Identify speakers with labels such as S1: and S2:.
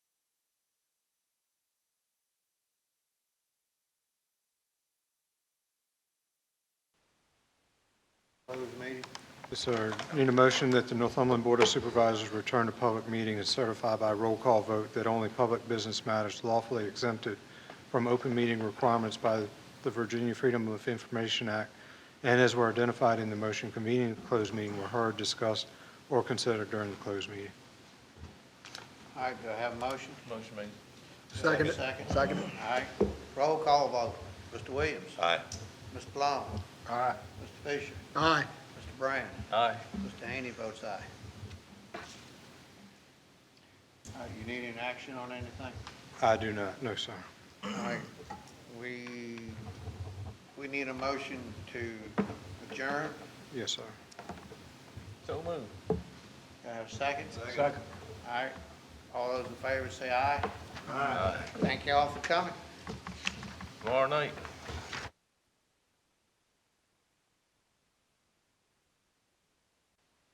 S1: Close the meeting.
S2: Yes, sir. Need a motion that the Northumberland Board of Supervisors return to public meeting and certify by roll call vote that only public business matters lawfully exempted from open meeting requirements by the Virginia Freedom of Information Act and as were identified in the motion convening the closed meeting were heard, discussed, or considered during the closed meeting.
S1: All right, do I have a motion? Motion made.
S3: Second it.
S1: Second.
S3: Second it.
S1: All right, roll call vote. Mr. Williams?
S4: Aye.
S1: Mr. Long?
S3: Aye.
S1: Mr. Fisher?
S3: Aye.
S1: Mr. Brand?
S4: Aye.
S1: Mr. Haney votes aye. All right, you need an action on anything?
S2: I do not, no, sir.
S1: All right, we, we need a motion to adjourn.
S2: Yes, sir.
S4: So moved.
S1: Do I have a second? Second. All right, all those in favor say aye. Aye. Thank you all for coming.
S4: Tomorrow night.